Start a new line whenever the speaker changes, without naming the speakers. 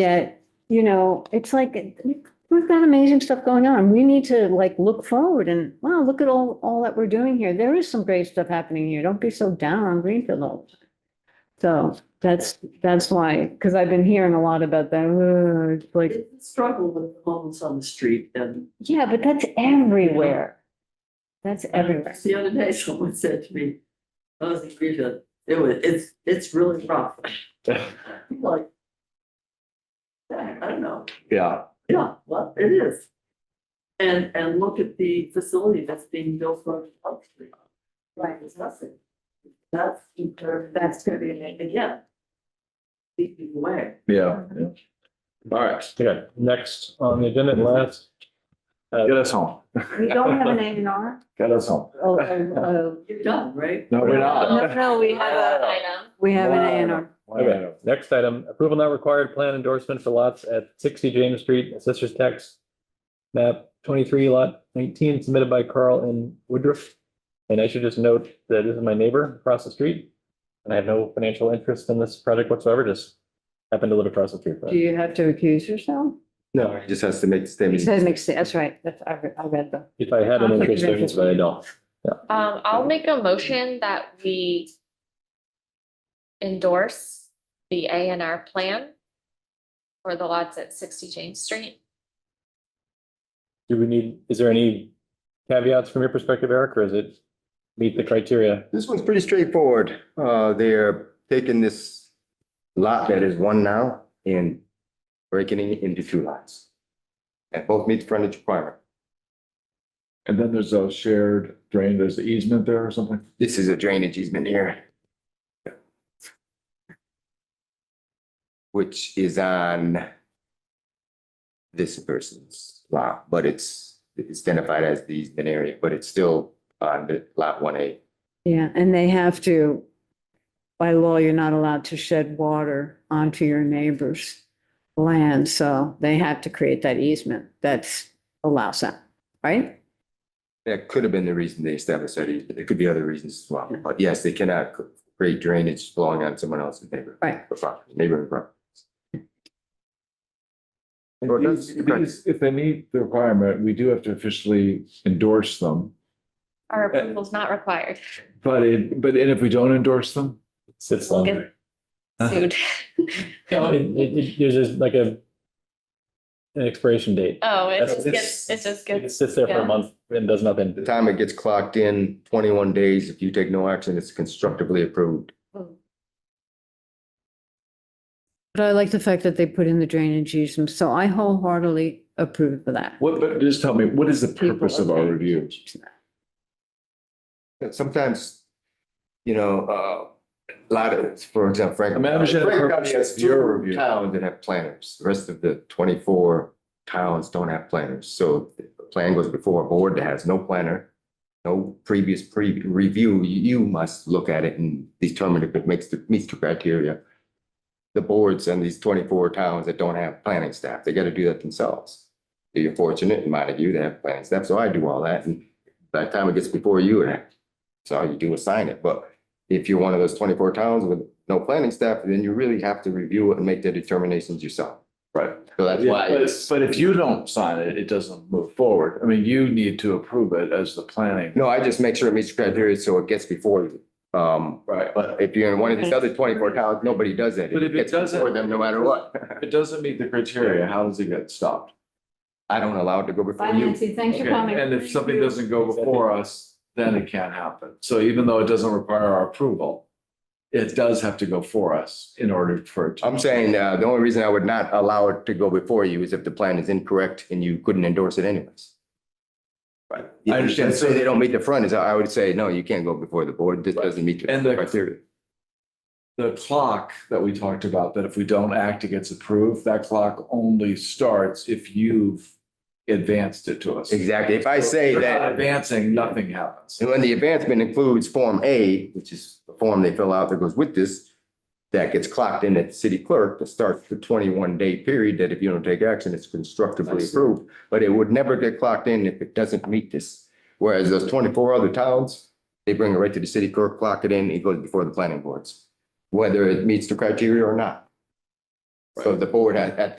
yet, you know, it's like, we've got amazing stuff going on. We need to like look forward and, wow, look at all, all that we're doing here. There is some great stuff happening here. Don't be so down on Greenfield all the time. So that's, that's why, because I've been hearing a lot about that, "Ugh," it's like,
It's a struggle with the homeless on the street and
yeah, but that's everywhere. That's everywhere.
Just the other day, someone said to me, "Oh, I was in Greenfield, it was, it's, it's really rough. I'm Like. "Yeah, I don't know,
Yeah,
yeah, well, it is. And, and look at the facility that's being built for Park Street. Right. It's nothing. That's, that's gonna be, again. Keeping away.
yeah, yeah. All right,
Okay, next on the agenda, last,
get us home,
We don't have an A and R.
get us home.
Oh, oh,
You're done, right?
No, we're
oh. No,
not.
no, we have a,
item.
we have an A and R.
okay, next item, approval not required, plan endorsement for lots at sixty James Street, assessors tax. Map twenty-three lot nineteen submitted by Carl in Woodruff. And I should just note that this is my neighbor across the street. And I have no financial interest in this project whatsoever, just happen to live across the street. but-
Do you have to accuse yourself?
No,
Just has to make the statement.
That makes sense. That's right. That's, I, re- I read the.
if I had an interest, there is, but I don't.
Um, I'll make a motion that we endorse the A and R plan for the lots at sixty James Street.
Do we need, is there any caveats from your perspective, Eric, or is it meet the criteria?
This one's pretty straightforward. Uh, they're taking this lot that is one now and breaking it into two lots. And both meet frontage requirement.
And then there's a shared drain, there's the easement there or something?
This is a drainage easement here. Which is on this person's lot, but it's it's identified as the easement area, but it's still on the lot one A.
Yeah, and they have to, by law, you're not allowed to shed water onto your neighbor's land, so they have to create that easement that's allows that, right?
That could have been the reason they established that easement. There could be other reasons as well, but yes, they cannot create drainage belonging on someone else's neighborhood.
Right.
property, Neighborhood property.
And
Well,
these-
that's- okay.
these- If they meet the requirement, we do have to officially endorse them,
Our approval's not required.
but it, but and if we don't endorse them?
Sits
We'll
on.
get sued.
No, it, it, it, there's just like a. An expiration date.
Oh, it
That's-
just gets, it just
It
gets,
sits there for
yeah.
a month and does
The
nothing.
time it gets clocked in, twenty-one days, if you take no action, it's constructively approved.
But I like the fact that they put in the drainage easement, so I wholeheartedly approve of that.
What, but just tell me, what is the purpose of our review?
And Sometimes, you know, uh, a lot of, for example, Frank.
I mean, I understand the
Frank
purpose
County has
of your
two
review.
Towns that have planners. The rest of the twenty-four towns don't have planners. So the plan goes before a board that has no planner, no previous pre, review. You must look at it and determine if it makes, the meets the criteria. The boards and these twenty-four towns that don't have planning staff, they gotta do that themselves. You're fortunate in Montague, they have planning staff, so I do all that. And by the time it gets before you, it so all you do is sign it, but if you're one of those twenty-four towns with no planning staff, then you really have to review it and make the determinations yourself.
Right.
So that's why,
But,
it's-
but if you don't sign it, it doesn't move forward. I mean, you need to approve it as the planning.
no, I just make sure it meets the criteria, so it gets before, you. um,
Right.
but if you're in one of these other twenty-four towns, nobody does that.
But if it
gets
doesn't-
Before them, no matter what,
If it doesn't meet the criteria, how does it get stopped?
I don't allow it to go before
Bye,
you.
Nancy, thanks for
Okay,
coming.
And if something doesn't go before us, then it can't happen. So even though it doesn't require our approval, it does have to go for us in order for it to.
I'm saying, uh, the only reason I would not allow it to go before you is if the plan is incorrect and you couldn't endorse it anyways.
Right.
If
I
you
understand.
say they don't meet the front, is, I would say, no, you can't go before the board, this
Right.
doesn't meet the
And the-
criteria.
The clock that we talked about, that if we don't act, it gets approved, that clock only starts if you've advanced it to us.
Exactly. If I say
If you're not
that,
Advancing, nothing happens.
and when the advancement includes Form A, which is the form they fill out that goes with this, that gets clocked in at the city clerk that starts the twenty-one day period that if you don't take action, it's
I
constructively
see.
approved. But it would never get clocked in if it doesn't meet this. Whereas those twenty-four other towns, they bring it right to the city clerk, clock it in, it goes before the planning boards, whether it meets the criteria or not. So the board at, at